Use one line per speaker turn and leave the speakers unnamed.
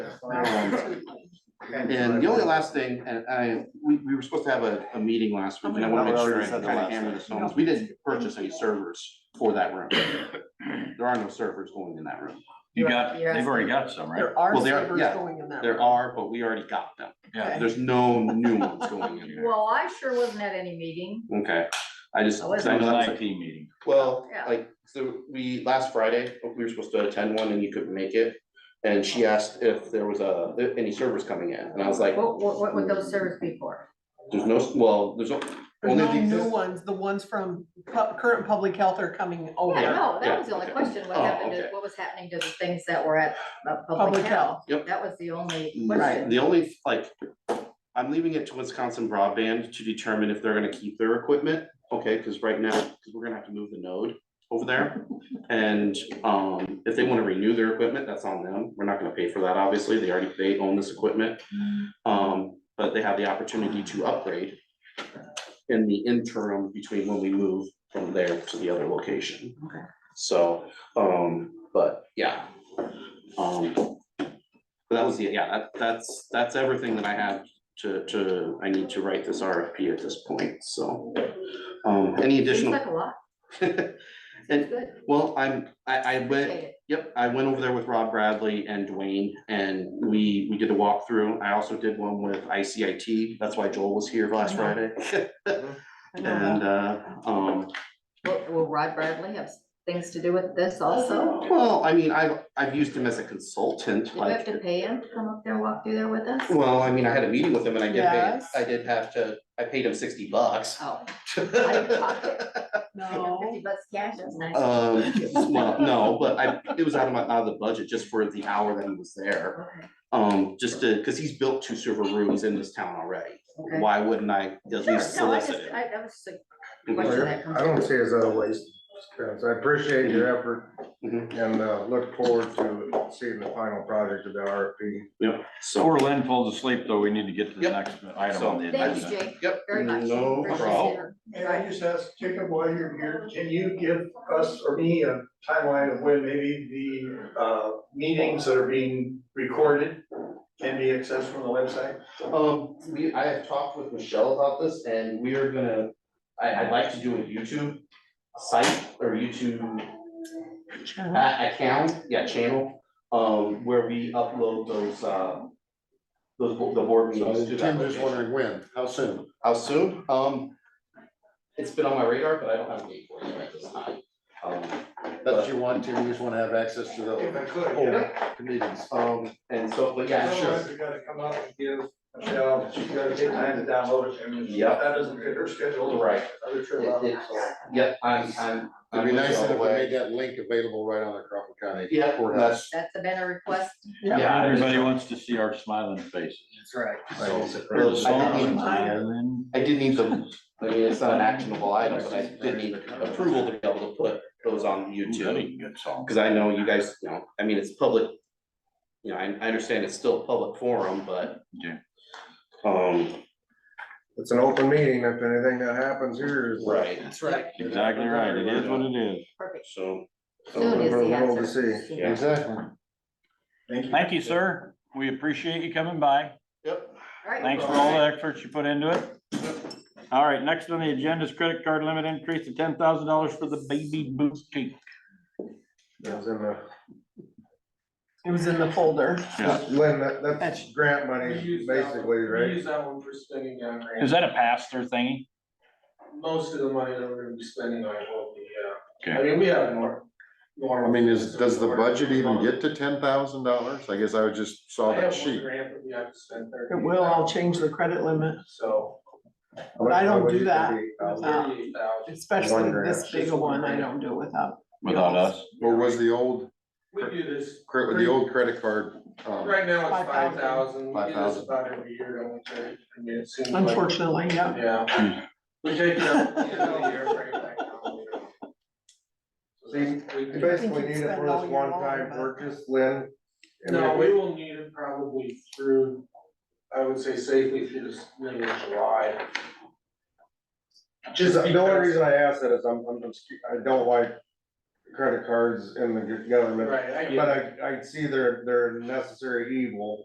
Um, And the only last thing, and I, we, we were supposed to have a, a meeting last week, and I wanna make sure I
Said
kind
the
of
last
hammer
thing.
this home, is we didn't purchase any servers for that room. There are no servers going in that room.
You got, they've already got some, right?
There are
Well, they are-
servers
yeah,
going in that.
There
room.
are, but we already got them.
Yeah.
There's no new ones going in there.
Well, I sure wasn't at any meeting.
Okay, I just.
I wasn't.
I
That was
know
an
that's a-
IT meeting.
Well,
Yeah.
like, so we, last Friday, we were supposed to attend one and you couldn't make it. And she asked if there was a, if any servers coming in, and I was like,
What, what, what would those servers be for?
there's no, well, there's o-
There's
only.
no
the
new
exist-
ones, the ones from pu- current public health are coming over.
Yeah, no,
Oh, yeah,
that was the only
okay.
question, what
Oh,
happened, to
okay.
what was happening to the things that were at the
Public
public health?
health. Yep.
That was the only
Right,
question.
the only, like, I'm leaving it to Wisconsin broadband to determine if they're gonna keep their equipment, okay, cause right now, cause we're gonna have to move the node over there. And, um, if they wanna renew their equipment, that's on them, we're not gonna pay for that, obviously, they already, they own this equipment. Um, but they have the opportunity to upgrade in the interim between when we move from there to the other location.
Okay.
So, um, but yeah. Um, but that was, the yeah, that, that's, that's everything that I have to, to, I need to write this RFP at this point, so. Um, any
Seems
additional,
like a lot, seems
and,
good,
well, I'm, I, I went,
appreciate it.
Yep, I went over there with Rob Bradley and Dwayne and we, we did a walkthrough. I also did one with ICIT. That's why Joel was here last Friday.
I know that.
And, uh, um,
Will, will Rod Bradley have things to do with this also?
well, I mean, I've, I've used him as a consultant,
Did you have
like,
to pay him to come up there and walk through there with us?
well, I mean, I had a meeting with him and I did pay,
Yes.
I did have to, I paid him sixty bucks.
Oh, I didn't talk
Um,
to fifty
No,
bucks cash, that's nice.
Uh, well, Um, no, but I, it was out of my, out of the budget just for the hour that he was there.
Okay,
Um, just to, because he's built two server rooms in this town already.
okay.
Why wouldn't I at least
Sure, no, I just,
solicit it?
I, that was just a
Mhm.
question that comes.
I don't see it as a waste, Spence. I appreciate your effort
Mhm.
and uh, look forward to seeing the final project of the RFP.
Yep, so.
Before Lynn falls asleep, though, we need to get to the
Yep.
next item on the
Thank you,
agenda.
Jake,
Yep.
very much.
Mm, No
Appreciate it.
problem.
May I just ask Jacob while you're here, can you give us or me a timeline of when maybe the uh meetings that are being recorded can be accessed from the website?
Um, we, I have talked with Michelle about this and we are gonna, I, I'd like to do a YouTube site or YouTube a- account, yeah, channel, um, where we upload those, uh, those, bo- the board meetings to that. location.
when, how soon?
How soon? Um, it's been on my radar, but I don't have a date for it right this time. Um, but-
you want to, you just want to have access to
If I could,
Oh,
yeah.
comedians.
um, and so, but yeah, sure.
Otherwise, we gotta come out and give Michelle, she's gotta take time to download it. and if
Yep.
That doesn't fit her schedule.
Right.
Other trip out,
It- it-
so.
Yep, I'm, I'm.
It'd be
I'm with
nice
you all
if
the
we
way.
made that link available right on the Crawford County.
Yeah,
Courthouse.
That's been a request.
Yeah.
Yeah.
Everybody wants to see our smiling faces.
Well,
There's a
I
song
did need-
that's in there, Lynn.
I did need the, I mean, it's not an actionable item, but I did need approval to be able to put those on
Ooh, that'd be
YouTube.
a Good song.
Cause I know you guys, you know, I mean, it's public, you know, I, I understand it's still a public forum, but.
Yeah.
Um,
It's an open meeting. If anything that happens here is.
right,
That's right.
Exactly right. It is what it is.
Perfect.
so,
Soon is
For the
the
world to
answer.
see.
Soon.
Exactly.
Thank you, sir. We appreciate you coming by.
yep,
All right.
Thanks for all the efforts you put into it. All right, next on the agenda is credit card limit increase to ten thousand dollars for the baby boutique.
It was in the-
It was in the folder.
Yeah.
Lynn, that, that's
That's-
grant money, basically, right?
Use that one for spending on grant.
Is that a pass-through thingy?
Most of the money that we're gonna be spending on it will be, uh, I
Okay.
mean, we have more. more-
I mean, is, does the budget even
I have
get to ten thousand dollars? I guess I would just saw
one
that sheet.
grant that we have to spend thirty.
It will, I'll change the credit limit,
So
But I don't do that. Uh,
thirty-eight thousand.
especially
One
this
grand.
big a one, I don't do without.
Without us?
Or was the old,
We do this,
cre- the old credit card, um,
right now it's five
5,000.
thousand. We do
5,000.
this about every year, don't we, Terry? I mean, it seems like.
Unfortunately, yeah.
Yeah. We take it up, you know, year right now, you know. So that's- we
You
can-
basically need it for this one-time purchase, Lynn. and
No,
if
we will need it probably through, I would say safely through this middle of July.
Just,
Just
the only
because,
reason I ask that is I'm, I'm, just- I don't like credit cards in the government,
right, I get
but
it.
I, I see they're, they're necessary evil.